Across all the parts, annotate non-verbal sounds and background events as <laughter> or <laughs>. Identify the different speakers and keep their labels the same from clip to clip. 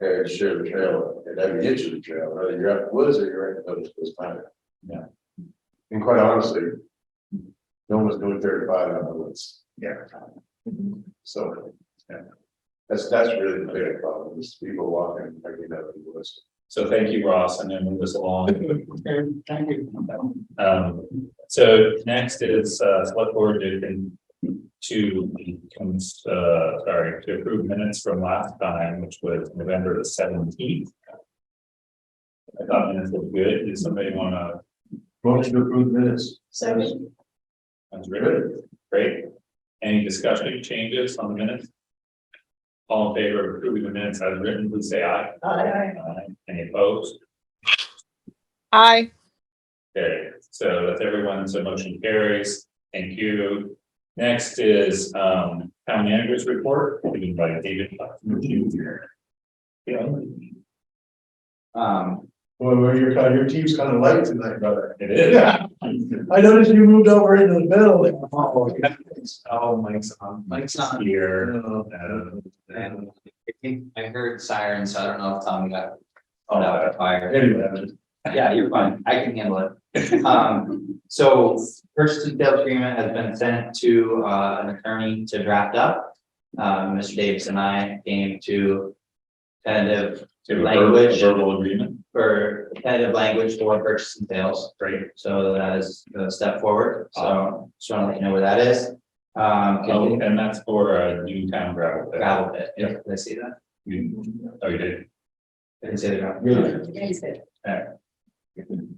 Speaker 1: Yeah, you share the trail, it doesn't get you the trail, whether you're up woods or you're in those, those kind of.
Speaker 2: Yeah.
Speaker 1: And quite honestly. No one's doing thirty-five on the woods,
Speaker 2: Yeah.
Speaker 1: so. yeah. That's, that's really the big problem, is people walking, like, you know, in the woods.
Speaker 2: So thank you, Ross, and then move us along.
Speaker 3: <laughs> Thank you.
Speaker 2: Um, so next is, uh, select board to, to, uh, sorry, to approve minutes from last time, which was November the seventeenth. I thought minutes looked good. Did somebody wanna,
Speaker 1: Motion to approve minutes.
Speaker 3: So,
Speaker 2: that's really great. Any discussion, changes on the minutes? All in favor of approving the minutes as written, please say aye.
Speaker 3: I,
Speaker 2: Aye. Any opposed?
Speaker 4: Aye.
Speaker 2: Okay, so that's everyone's motion carries. Thank you. Next is um town manager's report, given by David. Putnam Jr.. Yeah,
Speaker 3: um,
Speaker 1: Well, well, your, your team's kind of light tonight, brother.
Speaker 2: it is.
Speaker 1: Yeah. I noticed you moved over into the middle.
Speaker 2: Oh, Mike's on.
Speaker 3: Mike's on.
Speaker 2: Here. Uh,
Speaker 3: and I think I heard sirens, so I don't know if Tom got.
Speaker 2: Oh,
Speaker 3: out of fire.
Speaker 1: <laughs> Anyway,
Speaker 3: Yeah, you're fine. I can handle it. Um, so first detailed agreement has been sent to uh an attorney to draft up. Um, Mr. Davis and I came to tentative
Speaker 2: to a ver-
Speaker 3: Language.
Speaker 2: Verbal agreement,
Speaker 3: for tentative language for purchase and sales.
Speaker 2: great.
Speaker 3: So that is the step forward. So just want to let you know where that is. Um,
Speaker 2: Oh, and that's for a new town gravel. pit.
Speaker 3: gravel pit. Did I see that?
Speaker 2: You- Oh, you did.
Speaker 3: Did I say the gravel?
Speaker 1: Yeah.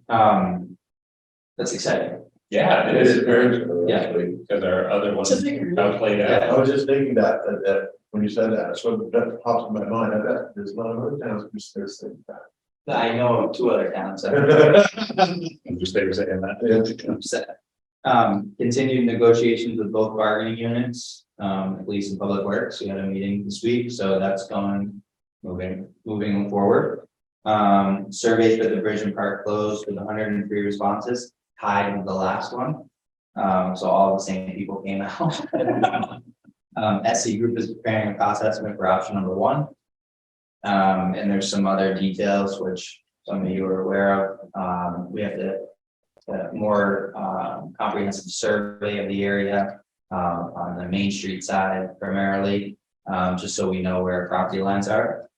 Speaker 3: Um, that's exciting.
Speaker 2: Yeah,
Speaker 1: It is very,
Speaker 3: Yeah.
Speaker 2: Because our other one
Speaker 4: It's a bigger-
Speaker 2: outplayed
Speaker 1: Yeah,
Speaker 2: out.
Speaker 1: I was just thinking that, that, that, when you said that, so that popped in my mind, I bet there's a lot of other towns who still say
Speaker 3: I know of two other towns <laughs> that are
Speaker 1: that.
Speaker 2: I'm Just they were saying that.
Speaker 3: upset. Um, continued negotiations with both bargaining units, um, police and public works. We had a meeting this week, so that's going,
Speaker 2: Moving.
Speaker 3: moving forward. Um, surveys for the Bridge and Park closed with hundred and three responses tied with the last one. Um, so all the same people came out. <laughs> Um, SC Group is preparing a cost estimate for option number one. Um, and there's some other details which some of you are aware of. Um, we have to a more um, comprehensive survey of the area um, on the Main Street side primarily, um, just so we know where property lines are.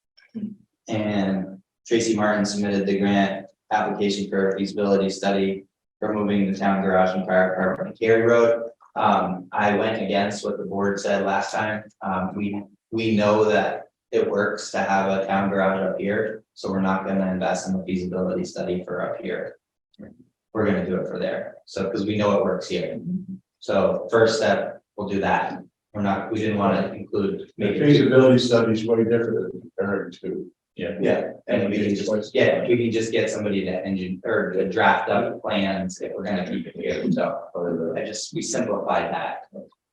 Speaker 3: And Tracy Martin submitted the grant application for a feasibility study for moving the town garage and fire department to Cary Road. Um, I went against what the board said last time. Um, We, we know that it works to have a town garage up here, so we're not going to invest in the feasibility study for up here we're gonna do it for there, so, because we know it works here. So first step, we'll do that, we're not, we didn't wanna include.
Speaker 1: The
Speaker 3: maybe-
Speaker 1: feasibility study is way different than comparing to.
Speaker 2: Yeah.
Speaker 3: Yeah, and we can just, yeah, we can just get somebody to engine, or to draft up plans if we're gonna keep it here, so
Speaker 1: uh,
Speaker 3: I just, we simplified that.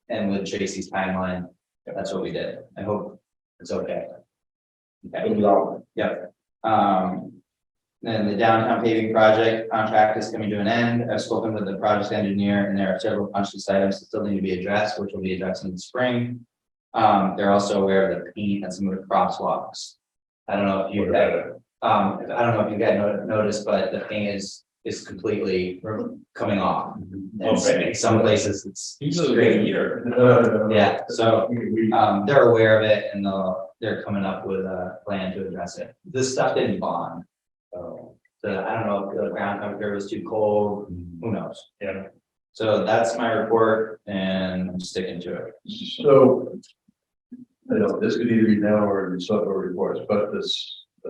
Speaker 3: And with Tracy's timeline, that's what we did, I hope it's okay. Okay.
Speaker 1: development.
Speaker 3: Um, then the downtown paving project contract is coming to an end. I've spoken with the project engineer and there are several punch list items that still need to be addressed, which will be addressed in the spring. Um, they're also aware of the paint and some of the crosswalks. I don't know if you,
Speaker 2: What
Speaker 3: guys-
Speaker 2: about it?
Speaker 3: um, I don't know if you guys no- noticed, but the paint is, is completely coming off. And so
Speaker 2: Okay.
Speaker 3: in some places it's
Speaker 2: Usually a
Speaker 3: straight.
Speaker 2: year.
Speaker 3: Yeah, so
Speaker 1: We- we-
Speaker 3: um, they're aware of it and they'll, they're coming up with a plan to address it. This stuff didn't bond.
Speaker 1: uh,
Speaker 3: So, the- I don't know if the ground temperature was too cold, who knows?
Speaker 2: Yeah.
Speaker 3: So that's my report and I'm sticking to it.
Speaker 1: So. I know this could either be now or in some other reports, but this,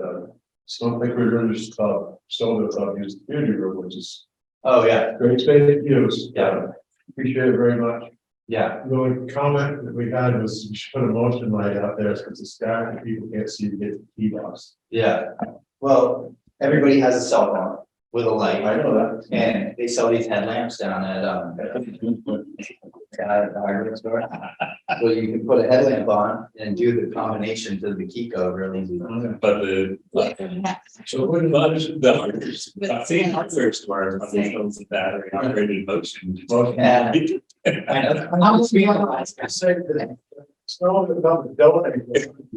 Speaker 1: uh, Snowflake Rivers Club, Solar Club used the community room, which is
Speaker 3: Oh, yeah,
Speaker 1: great space to use. Uh,
Speaker 3: Yeah.
Speaker 1: Appreciate it very much.
Speaker 3: yeah,
Speaker 1: The only comment that we had was you should put a motion light out there because it's dark and people can't see to get to the key box.
Speaker 3: yeah. Well, everybody has a cell phone with a light
Speaker 1: know that.
Speaker 3: and they sell these headlamps down at,
Speaker 1: <laughs>
Speaker 3: um, at the hardware store. So you can put a headlamp on and do the combination to the Kiko really easy.
Speaker 1: Mm-hmm.
Speaker 2: But the. So what about the hardware, I'm seeing hardware stores, on these phones with battery operated motion.
Speaker 3: Yeah.
Speaker 2: Motion.
Speaker 3: I know.
Speaker 1: It's not about the donate.